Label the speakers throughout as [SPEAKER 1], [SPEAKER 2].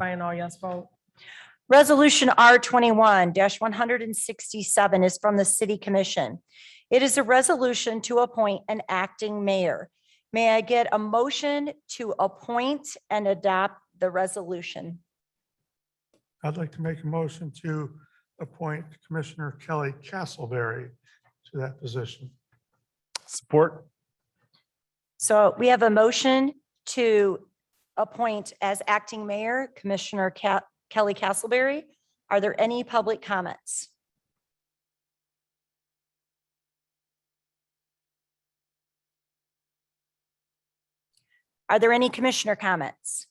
[SPEAKER 1] by an all yes vote.
[SPEAKER 2] Resolution R twenty-one one hundred and sixty-seven is from the City Commission. It is a resolution to appoint an acting mayor. May I get a motion to appoint and adopt the resolution?
[SPEAKER 3] I'd like to make a motion to appoint Commissioner Kelly Castleberry to that position.
[SPEAKER 4] Support.
[SPEAKER 2] So we have a motion to appoint as acting mayor Commissioner Ca- Kelly Castleberry. Are there any public comments? Are there any commissioner comments?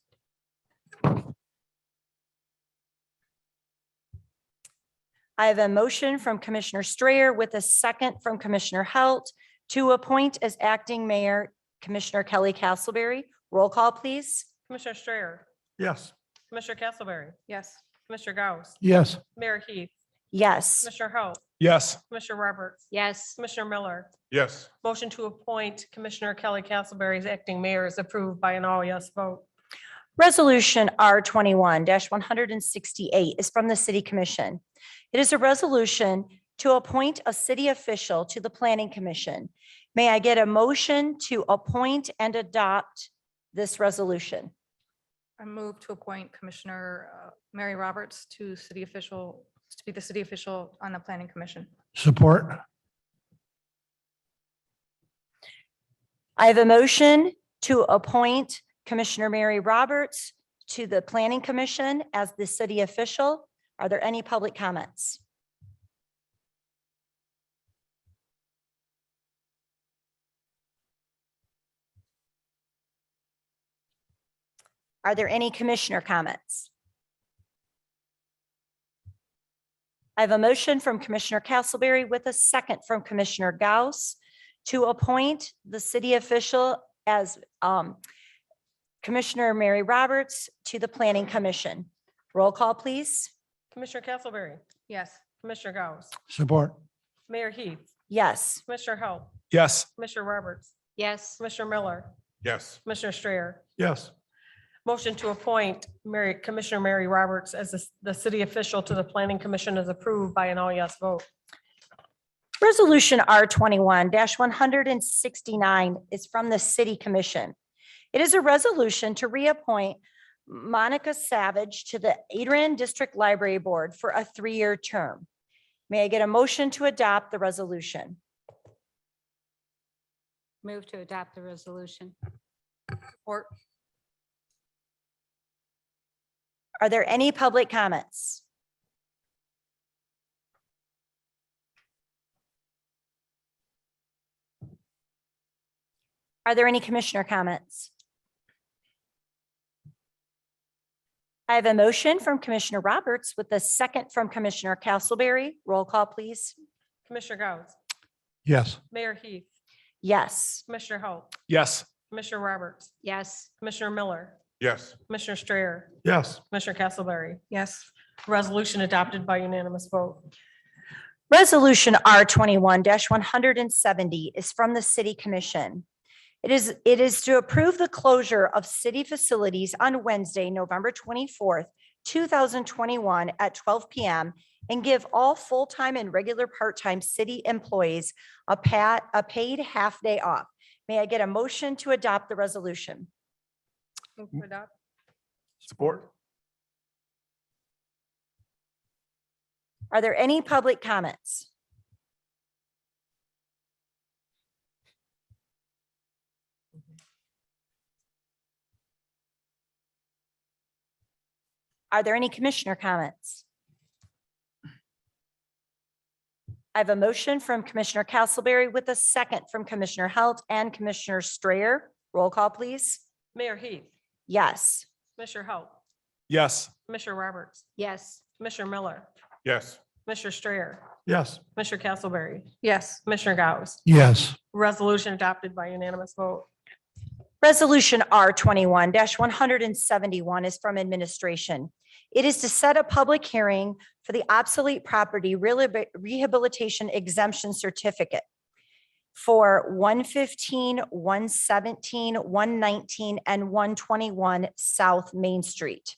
[SPEAKER 2] I have a motion from Commissioner Strayer with a second from Commissioner Halt to appoint as acting mayor Commissioner Kelly Castleberry. Roll call, please.
[SPEAKER 1] Commissioner Strayer,
[SPEAKER 3] Yes.
[SPEAKER 1] Commissioner Castleberry,
[SPEAKER 5] yes,
[SPEAKER 1] Commissioner Gauss,
[SPEAKER 3] Yes.
[SPEAKER 1] Mayor Heath,
[SPEAKER 2] Yes.
[SPEAKER 1] Commissioner Halt,
[SPEAKER 4] Yes.
[SPEAKER 1] Commissioner Roberts,
[SPEAKER 5] yes,
[SPEAKER 1] Commissioner Miller.
[SPEAKER 4] Yes.
[SPEAKER 1] Motion to appoint Commissioner Kelly Castleberry as acting mayor is approved by an all yes vote.
[SPEAKER 2] Resolution R twenty-one one hundred and sixty-eight is from the City Commission. It is a resolution to appoint a city official to the Planning Commission. May I get a motion to appoint and adopt this resolution?
[SPEAKER 5] I move to appoint Commissioner uh, Mary Roberts to city official, to be the city official on the planning commission.
[SPEAKER 3] Support.
[SPEAKER 2] I have a motion to appoint Commissioner Mary Roberts to the Planning Commission as the city official. Are there any public comments? Are there any commissioner comments? I have a motion from Commissioner Castleberry with a second from Commissioner Gauss to appoint the city official as um, Commissioner Mary Roberts to the Planning Commission. Roll call, please.
[SPEAKER 1] Commissioner Castleberry,
[SPEAKER 5] Yes,
[SPEAKER 1] Commissioner Gauss,
[SPEAKER 3] Support.
[SPEAKER 1] Mayor Heath,
[SPEAKER 2] Yes.
[SPEAKER 1] Commissioner Halt,
[SPEAKER 4] Yes.
[SPEAKER 1] Commissioner Roberts,
[SPEAKER 5] yes,
[SPEAKER 1] Commissioner Miller,
[SPEAKER 4] Yes.
[SPEAKER 1] Commissioner Strayer.
[SPEAKER 3] Yes.
[SPEAKER 1] Motion to appoint Mary, Commissioner Mary Roberts as the- the city official to the Planning Commission is approved by an all yes vote.
[SPEAKER 2] Resolution R twenty-one one hundred and sixty-nine is from the City Commission. It is a resolution to reappoint Monica Savage to the Adrian District Library Board for a three-year term. May I get a motion to adopt the resolution?
[SPEAKER 6] Move to adopt the resolution.
[SPEAKER 5] or
[SPEAKER 2] Are there any public comments? Are there any commissioner comments? I have a motion from Commissioner Roberts with a second from Commissioner Castleberry. Roll call, please.
[SPEAKER 1] Commissioner Gauss,
[SPEAKER 3] Yes.
[SPEAKER 1] Mayor Heath,
[SPEAKER 2] Yes.
[SPEAKER 1] Commissioner Halt,
[SPEAKER 4] Yes.
[SPEAKER 1] Commissioner Roberts,
[SPEAKER 6] Yes,
[SPEAKER 1] Commissioner Miller,
[SPEAKER 4] Yes.
[SPEAKER 1] Commissioner Strayer,
[SPEAKER 3] Yes.
[SPEAKER 1] Commissioner Castleberry.
[SPEAKER 5] yes,
[SPEAKER 1] Resolution adopted by unanimous vote.
[SPEAKER 2] Resolution R twenty-one one hundred and seventy is from the City Commission. It is, it is to approve the closure of city facilities on Wednesday, November twenty-fourth, two thousand twenty-one at twelve PM and give all full-time and regular part-time city employees a pat, a paid half-day off. May I get a motion to adopt the resolution?
[SPEAKER 5] move to adopt,
[SPEAKER 4] Support.
[SPEAKER 2] Are there any public comments? Are there any commissioner comments? I have a motion from Commissioner Castleberry with a second from Commissioner Halt and Commissioner Strayer. Roll call, please.
[SPEAKER 1] Mayor Heath,
[SPEAKER 2] Yes.
[SPEAKER 1] Commissioner Halt,
[SPEAKER 4] Yes.
[SPEAKER 1] Commissioner Roberts,
[SPEAKER 6] yes,
[SPEAKER 1] Commissioner Miller,
[SPEAKER 4] Yes.
[SPEAKER 1] Commissioner Strayer,
[SPEAKER 3] Yes.
[SPEAKER 1] Commissioner Castleberry,
[SPEAKER 5] yes,
[SPEAKER 1] Commissioner Gauss.
[SPEAKER 3] Yes.
[SPEAKER 1] Resolution adopted by unanimous vote.
[SPEAKER 2] Resolution R twenty-one one hundred and seventy-one is from administration. It is to set a public hearing for the obsolete property rehabil- rehabilitation exemption certificate for 115, 117, 119, and one twenty-one South Main Street.